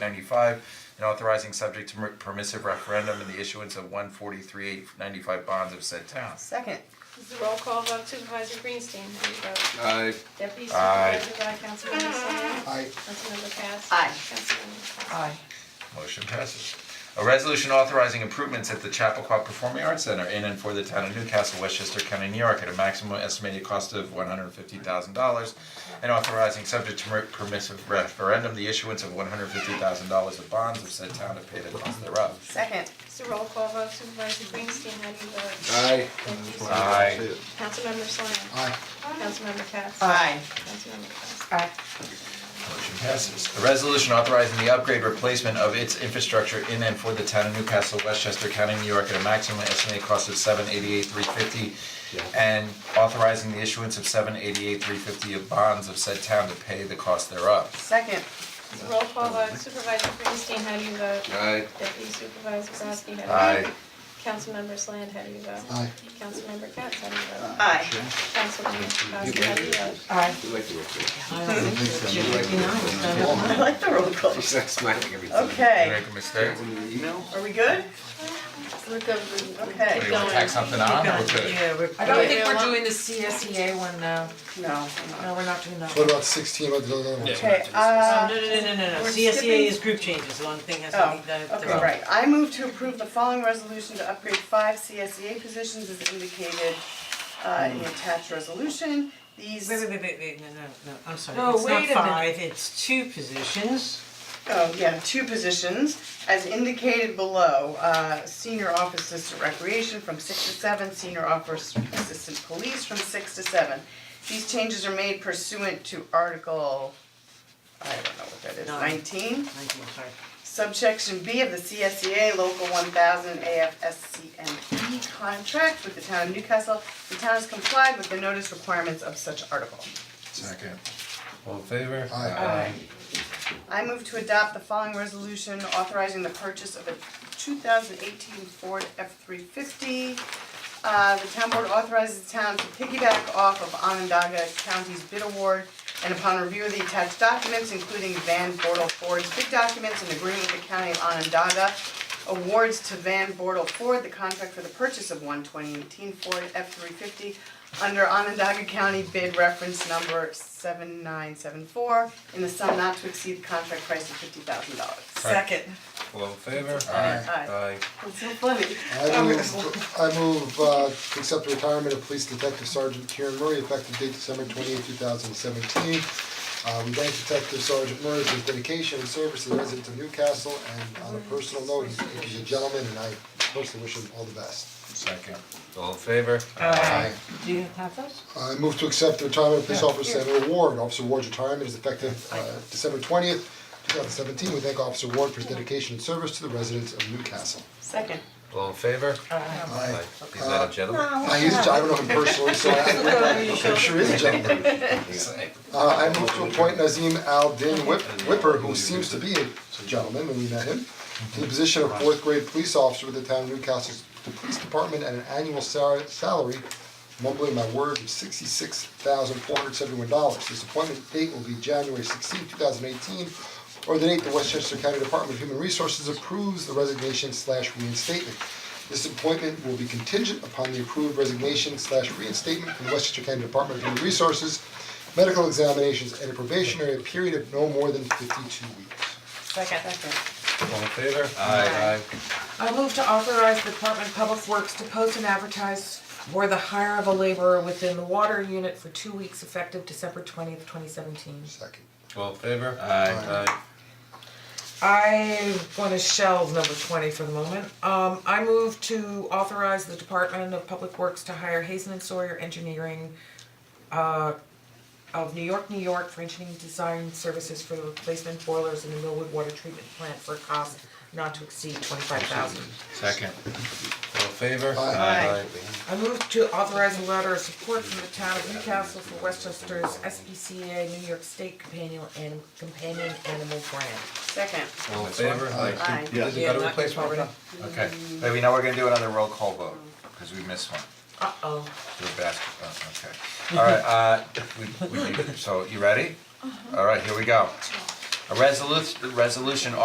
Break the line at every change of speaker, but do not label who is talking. ninety-five and authorizing subject to mer- permissive referendum and the issuance of one forty-three eight ninety-five bonds of said town.
Second,
This is a roll call vote Supervisor Greenstein, how do you vote?
Aye.
Deputy
Aye.
Supervisor Guy, Councilmember Sutton.
Aye.
Councilmember Cass.
Aye.
Councilmember Fox.
aye,
Motion passes. A resolution authorizing improvements at the Chappaqua Performing Arts Center in and for the town of Newcastle, Westchester County, New York, at a maximum estimated cost of one hundred fifty thousand dollars and authorizing subject to mer- permissive referendum, the issuance of one hundred fifty thousand dollars of bonds of said town to pay the cost thereof.
second,
This is a roll call vote Supervisor Greenstein, how do you vote?
Aye.
Deputy Supervisor-
Aye.
Councilmember Slant.
Aye.
Councilmember Cass.
aye,
Councilmember Cass.
aye,
Motion passes. A resolution authorizing the upgrade replacement of its infrastructure in and for the town of Newcastle, Westchester County, New York at a maximum estimated cost of seven eighty-eight, three fifty. And authorizing the issuance of seven eighty-eight, three fifty of bonds of said town to pay the cost thereof.
second,
This is a roll call vote Supervisor Greenstein, how do you vote?
Aye.
Deputy Supervisor Grasky, how do you vote? Councilmember Slant, how do you vote?
Aye.
Councilmember Cass, how do you vote?
aye,
Councilmember Fox, how do you vote?
aye.
We like the roll call.
I like the roll call.
She's like smiling every time.
Did I
Okay,
make a mistake?
When you email?
are we good? We're good, we-
Do
okay.
you want to tack something on or we're good?
Yeah, we're.
I don't think we're doing the CSEA one now.
No,
No, we're not doing that.
What about sixteen, what the other ones?
okay, uh,
No, no, no, no, no, no,
We're
CSEA
skipping-
is group changes, one thing has
oh,
to be done.
okay, right. I move to approve the following resolution to upgrade five CSEA positions as indicated uh in the attached resolution. These,
Wait, wait, wait, wait, wait, no, no, no, I'm sorry,
No,
it's
wait a
not
minute.
five, it's two positions.
oh, yeah, two positions as indicated below. Uh, senior office assistant recreation from six to seven, senior office assistant police from six to seven. These changes are made pursuant to Article, I don't know what that is,
Nine.
nineteen?
Thank you, sorry.
Subsection B of the CSEA Local one thousand AFSCME E contract with the town of Newcastle. The town has complied with the notice requirements of such article.
Second. All in favor?
Aye.
I move to adopt the following resolution authorizing the purchase of a two thousand eighteen Ford F three fifty. Uh, the town board authorizes the town to piggyback off of Onondaga County's bid award and upon review of the attached documents, including Van Bortle Ford's bid documents and agreement with the county of Onondaga, awards to Van Bortle Ford the contract for the purchase of one 2018 Ford F three fifty under Onondaga County bid reference number seven nine seven four in the sum not to exceed the contract price of fifty thousand dollars.
Second.
All in favor?
Aye. That's so funny.
I move, I move, uh, to accept the retirement of Police Detective Sergeant Kieran Murray effective date December twenty eighth, two thousand seventeen. Uh, we thank Detective Sergeant Murray for his dedication and service to the residents of Newcastle, and on a personal note, he's, he's a gentleman, and I personally wish him all the best.
Second. All in favor?
Aye.
Do you have those?
I move to accept the retirement of police officer Samuel Ward. Officer Ward's retirement is effective uh, December twentieth, two thousand seventeen. We thank Officer Ward for his dedication and service to the residents of Newcastle.
Second.
All in favor?
Aye.
Is that a gentleman?
I use, I don't know him personally, so I, I'm sure he's a gentleman.
Say.
Uh, I move to appoint Nazim Al Din Whip, Whipper, who seems to be a gentleman when we met him, to the position of fourth grade police officer with the town of Newcastle's Police Department at an annual sal- salary, mumbling my words, of sixty-six thousand four hundred seventy-one dollars. This appointment date will be January sixteenth, two thousand eighteen, or the date the Westchester County Department of Human Resources approves the resignation slash reinstatement. This appointment will be contingent upon the approved resignation slash reinstatement from the Westchester County Department of Human Resources, medical examinations, and a probationary period of no more than fifty-two weeks.
Second.
All in favor? Aye. Aye.
I move to authorize the Department of Public Works to post and advertise for the hire of a laborer within the water unit for two weeks effective December twentieth, twenty seventeen.
Second.
All in favor? Aye. Aye.
I wanna shelve number twenty for the moment. Um, I move to authorize the Department of Public Works to hire Hazen and Sawyer Engineering uh of New York, New York for engineering design services for the replacement boilers in the Millwood Water Treatment Plant for a cost not to exceed twenty-five thousand.
Second. All in favor?
Aye.
I move to authorize a letter of support from the town of Newcastle for Westchester's SPCA New York State Companion and Companion Animal Grant.
Second.
All in favor?
Aye.
Is it
Yeah,
better
not-
replacement right now? Okay, maybe now we're gonna do another roll call vote, cause we missed one,
Uh-oh.
we're basket, oh, okay. Alright, uh, we, we, so, you ready? Alright, here we go. A resolu- resolution